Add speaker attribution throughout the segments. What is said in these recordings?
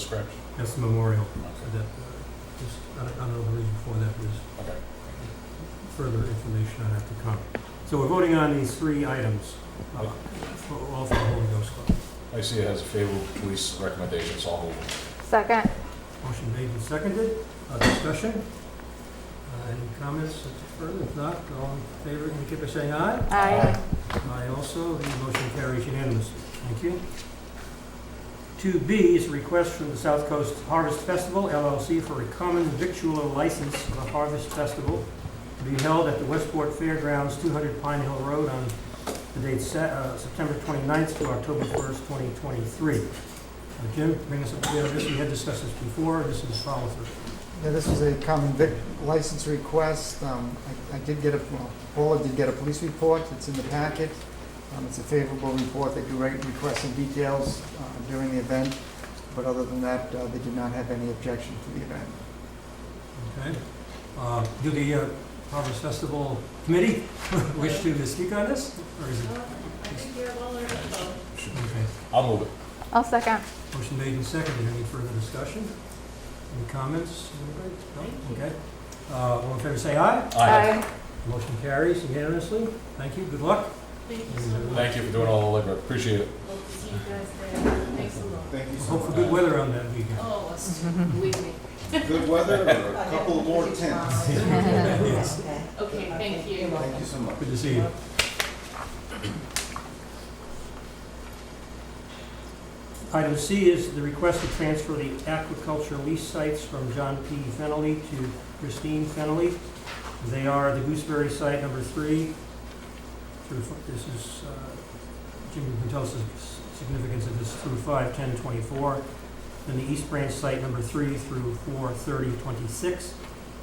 Speaker 1: description?
Speaker 2: That's the memorial
Speaker 1: Okay,
Speaker 2: that, uh, just, I don't I don't know the reason for that, there's
Speaker 1: okay.
Speaker 2: further information on after come. So we're voting on these three items, uh, for- all for the Holy Ghost Club.
Speaker 1: I see it has a favorable police recommendation, so I'll hold it.
Speaker 3: Second.
Speaker 2: Motion made and seconded, Uh, discussion? Uh, Any comments further? If not, all in favor, indicate by saying aye.
Speaker 3: Aye.
Speaker 2: I also, the motion carries unanimously. Thank you. 2B is a request from the South Coast Harvest Festival LLC for a common victualer license for the Harvest Festival to be held at the Westport Fairgrounds, 200 Pine Hill Road on the date Sa- uh, September 29th to October 1st, 2023. Uh, Jim, bring us up to date on this. We had discussed this before. This is follow through.
Speaker 4: Yeah, this was a common vic license request. Um, I I did get a, well, Paula did get a police report, it's in the packet. Um, It's a favorable report, they do re- request some details uh, during the event, but other than that, uh, they did not have any objection to the event.
Speaker 2: Okay? Uh, Do the uh, Harvest Festival Committee wish to speak on this? Or is it
Speaker 5: Uh, I think you're well learned about
Speaker 1: Should-
Speaker 2: Okay,
Speaker 1: I'll move it.
Speaker 3: I'll second.
Speaker 2: motion made and seconded. Any further discussion? Any comments? Anybody? No? Okay. Uh, All in favor, say aye. Motion carries unanimously. Thank you, good luck.
Speaker 5: Thank you so much.
Speaker 1: Thank you for doing all the legwork, appreciate it.
Speaker 5: Hope to see you guys there. Thanks a lot.
Speaker 6: Thank you so
Speaker 2: Hope for
Speaker 6: much.
Speaker 2: good weather on that weekend.
Speaker 5: Oh, it's- believe me.
Speaker 6: Good weather, or a couple more tents.
Speaker 2: Yes.
Speaker 5: Okay, thank you.
Speaker 6: Thank you so much.
Speaker 2: Good to see you. Item C is the request to transfer the aquaculture lease sites from John P. Fennelly to Christine Fennelly. They are the Gooseberry Site Number Three. through f- This is, uh, Jim, you can tell us the s- significance of this through five ten twenty-four. Then the East Branch Site Number Three through four thirty twenty-six.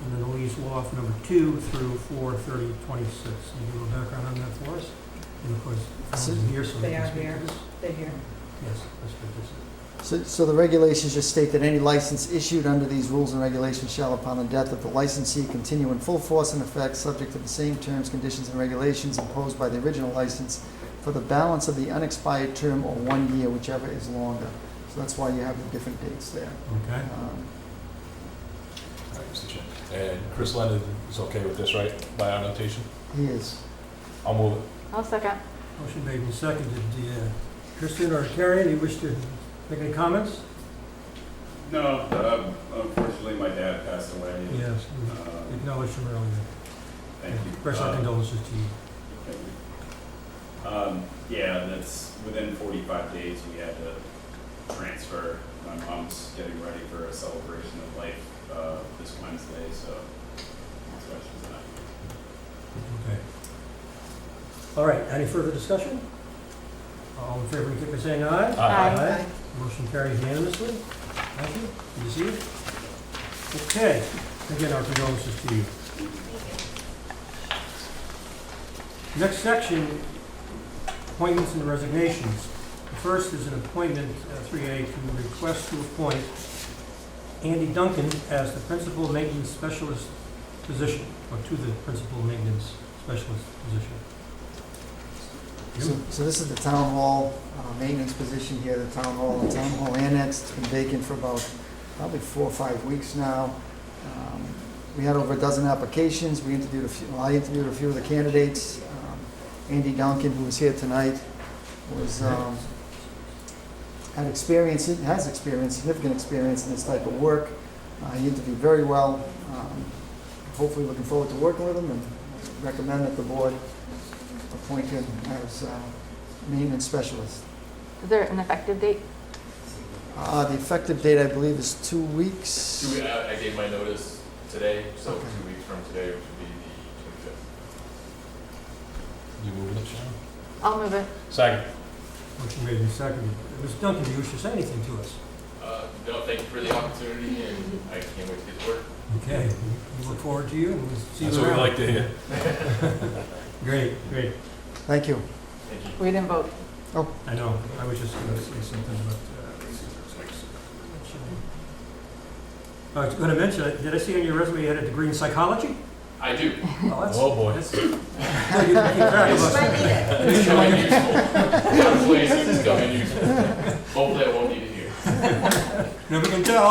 Speaker 2: And then Louise Wolf, number two through four thirty twenty-six. Can you give a background on that for us? And of course, Alan's here, so they
Speaker 7: They
Speaker 2: can
Speaker 7: are
Speaker 2: speak to
Speaker 7: here.
Speaker 2: this.
Speaker 7: They're here.
Speaker 2: Yes, let's put this in.
Speaker 4: So, so the regulations just state that any license issued under these rules and regulations shall, upon the death of the licensee, continue in full force and effect, subject to the same terms, conditions, and regulations imposed by the original license for the balance of the unexpired term or one year, whichever is longer. So that's why you have the different dates there.
Speaker 2: Okay.
Speaker 4: Um,
Speaker 1: All right, Mr. Chair. And Chris Lennon is okay with this, right, by our notation?
Speaker 4: He is.
Speaker 1: I'll move it.
Speaker 3: I'll second.
Speaker 2: Motion made and seconded. The, uh, Kristen or Carrie, do you wish to make any comments?
Speaker 8: No, um, unfortunately, my dad passed away.
Speaker 2: Yes.
Speaker 8: Uh,
Speaker 2: we Acknowledged them earlier.
Speaker 8: Thank you.
Speaker 2: Express our
Speaker 8: Uh,
Speaker 2: condolences to you.
Speaker 8: thank you. Um, Yeah, that's, within 45 days, we had to transfer. My mom's getting ready for a celebration of life uh, this Wednesday, so that's why she's not here.
Speaker 2: Okay. All right, any further discussion? All in favor, indicate by saying aye.
Speaker 3: Aye.
Speaker 2: Motion carries unanimously. Thank you. Good to see you. Okay, again, our condolences to you. Next section, appointments and resignations. The first is an appointment, uh, 3A, to request to appoint Andy Duncan as the principal maintenance specialist position, or to the principal maintenance specialist position.
Speaker 4: So, so this is the town hall uh, maintenance position here, the town hall, the town hall annex, it's been vacant for about probably four or five weeks now. Um, We had over a dozen applications, we interviewed a few, well, I interviewed a few of the candidates. Um, Andy Duncan, who was here tonight, was, um, had experience, has experience, significant experience in this type of work. Uh, He interviewed very well, Um, hopefully looking forward to working with him and recommend that the board appoint him as uh, maintenance specialist.
Speaker 3: Is there an effective date?
Speaker 4: Uh, The effective date, I believe, is two weeks.
Speaker 9: Two, we- I I gave my notice today, so
Speaker 4: Okay.
Speaker 9: two weeks from today, which would be the twenty-fifth.
Speaker 1: You moving it, Sharon?
Speaker 3: I'll move it.
Speaker 1: Second.
Speaker 2: Motion made and seconded. Mr. Duncan, do you wish to say anything to us?
Speaker 9: Uh, no, thank you for the opportunity, and I can't wait to get to work.
Speaker 2: Okay, we look forward to you, and we'll see you around.
Speaker 1: That's what we like to hear.
Speaker 2: Great, great.
Speaker 4: Thank you.
Speaker 9: Thank you.
Speaker 3: We didn't vote.
Speaker 2: I know, I was just gonna say something, uh, but. uh, I was gonna mention, did I see on your resume you had a degree in psychology?
Speaker 9: I do.
Speaker 2: Oh, that's-
Speaker 1: Oh, boy.
Speaker 2: that's- No, you- you cracked us.
Speaker 9: It's coming useful. Some places it's coming useful. Hopefully I won't need it here.
Speaker 2: Never can tell.